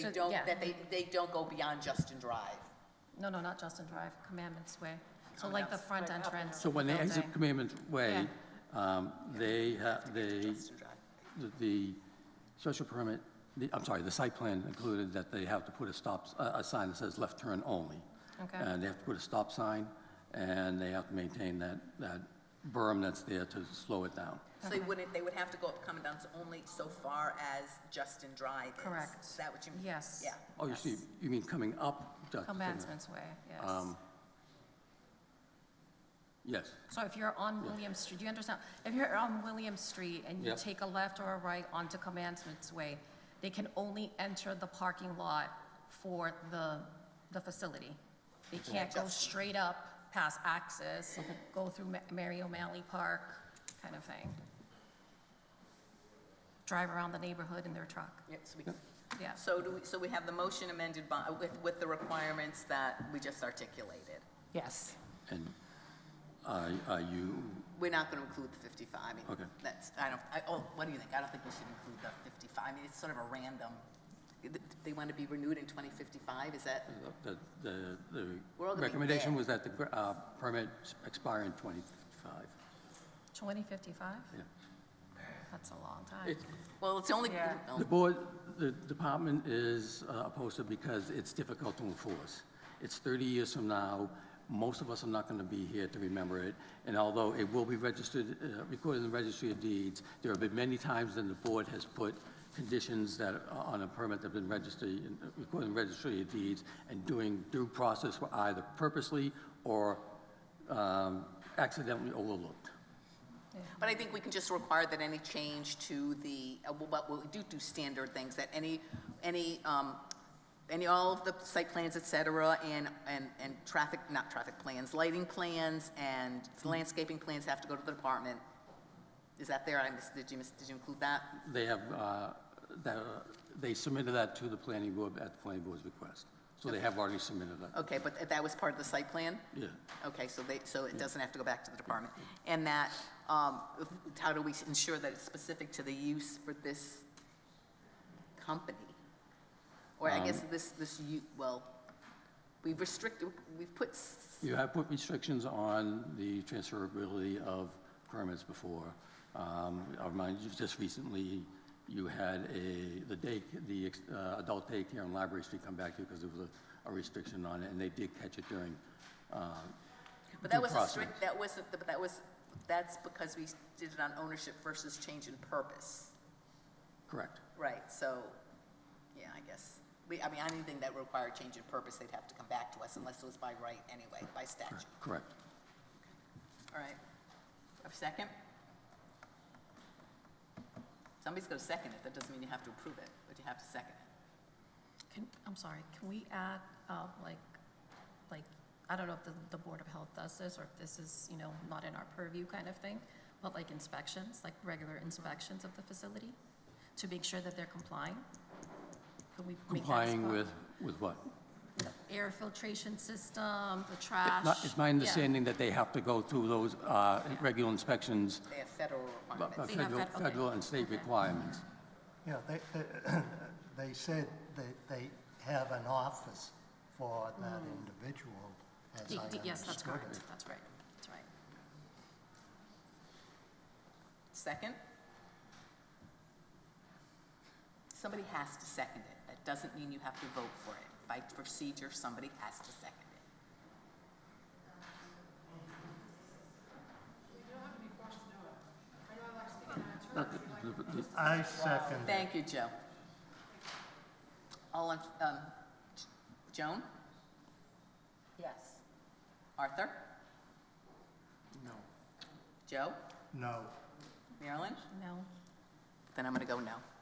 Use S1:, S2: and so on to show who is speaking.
S1: So,
S2: don't,
S1: yeah.
S2: that they, they don't go beyond Justin Drive.
S1: No, no, not Justin Drive, Commandments Way. So like the front entrance.
S3: So when they exit
S1: building.
S3: Commandment Way, um, they, ha- they,
S2: Justin Drive.
S1: Uh-huh.
S3: the- the special permit, the, I'm sorry, the site plan included that they have to put a stop, s- a, a sign that says left turn only.
S1: Okay.
S3: And they have to put a stop sign, and they have to maintain that, that berm that's there to slow it down.
S2: So they wouldn't, they would have to go up Commandant's only so far as Justin Drive is.
S1: Correct.
S2: Is that what you mean?
S1: Yes.
S2: Yeah.
S3: Oh, you see, you mean coming up? Dr. Finley?
S1: Commandments Way, yes.
S3: Um, Yes,
S1: So if you're on William Street, do you understand? If you're on William Street and you
S3: Yep.
S1: take a left or a right onto Commandments Way, they can only enter the parking lot for the, the facility. They can't go straight up past Access, go through Ma- Mary O'Malley Park, kind of thing. Drive around the neighborhood in their truck,
S2: Yeah, so we-
S1: yeah.
S2: So do we, so we have the motion amended by, with, with the requirements that we just articulated.
S4: Yes.
S3: and, uh, are you,
S2: We're not going to include the 55. I mean,
S3: Okay.
S2: That's, I don't, I, oh, what do you think? I don't think we should include the 55. I mean, it's sort of a random, they want to be renewed in 2055, is that?
S3: the, the,
S2: We're all gonna
S3: the
S2: be
S3: recommendation
S2: dead.
S3: was that the, gr- uh, permit expire in twenty-five.
S1: 2055?
S3: Yeah.
S1: That's a long time.
S3: It's-
S2: Well, it's only,
S4: Yeah.
S2: no,
S3: The board, the department is uh, opposed to it because it's difficult to enforce. It's 30 years from now, most of us are not going to be here to remember it, and although it will be registered, uh, recorded in the registry of deeds, there have been many times when the board has put conditions that, are on a permit that have been registered, in- recorded in the registry of deeds, and doing due process were either purposely or um, accidentally overlooked.
S2: But I think we can just require that any change to the, uh, well, but we do do standard things, that any, any, um, any, all of the site plans, et cetera, and, and, and traffic, not traffic plans, lighting plans and landscaping plans have to go to the department. Is that there? I missed, did you miss, did you include that?
S3: They have, uh, that, uh, they submitted that to the planning board at the planning board's request. So they have already submitted that.
S2: Okay, but that was part of the site plan?
S3: Yeah.
S2: Okay, so they, so it doesn't have to go back to the department. And that, um, if- how do we ensure that it's specific to the use for this company? Or I
S3: Um.
S2: guess this, this, u- well, we've restricted, we've put, s-
S3: You have put restrictions on the transferability of permits before. Um, I remind you, just recently, you had a, the day, the ex- uh, adult daycare on Library Street come back to you because there was a- a restriction on it, and they did catch it during uh,
S2: but
S3: due
S2: that was a
S3: process.
S2: strict, that wasn't, but that was, that's because we did it on ownership versus change in purpose.
S3: Correct.
S2: Right, so, yeah, I guess, we, I mean, anything that required change in purpose, they'd have to come back to us unless it was by right anyway, by statute.
S3: Correct.
S2: All right. A second? Somebody's going to second it. That doesn't mean you have to approve it, but you have to second it.
S1: Can, I'm sorry, can we add, uh, like, like, I don't know if the, the Board of Health does this, or if this is, you know, not in our purview kind of thing, but like inspections, like regular inspections of the facility, to make sure that they're complying? Can we make that as
S3: Complying
S1: part-
S3: with, with what?
S1: Air filtration system, the trash?
S3: Not- It's my
S1: uh, yeah.
S3: understanding that they have to go through those uh, regular inspections
S2: They have federal
S3: But- but
S2: requirements.
S1: you have
S3: Federal,
S1: fed- okay.
S3: federal and state requirements.
S5: Yeah, they, they- they said that they have an office for that individual, as
S1: D-
S5: I
S1: d-
S5: understood it.
S1: Mm. Yes, that's correct, that's right, that's right.
S2: Second? Somebody has to second it. That doesn't mean you have to vote for it. By procedure, somebody has to second it.
S3: Not the- the- the-
S5: I second it.
S2: Thank you, Joe. All in, um, J- Joan?
S4: Yes.
S2: Arthur?
S5: No.
S2: Joe?
S5: No.
S2: Marilyn?
S1: No,
S2: Then I'm going to go no.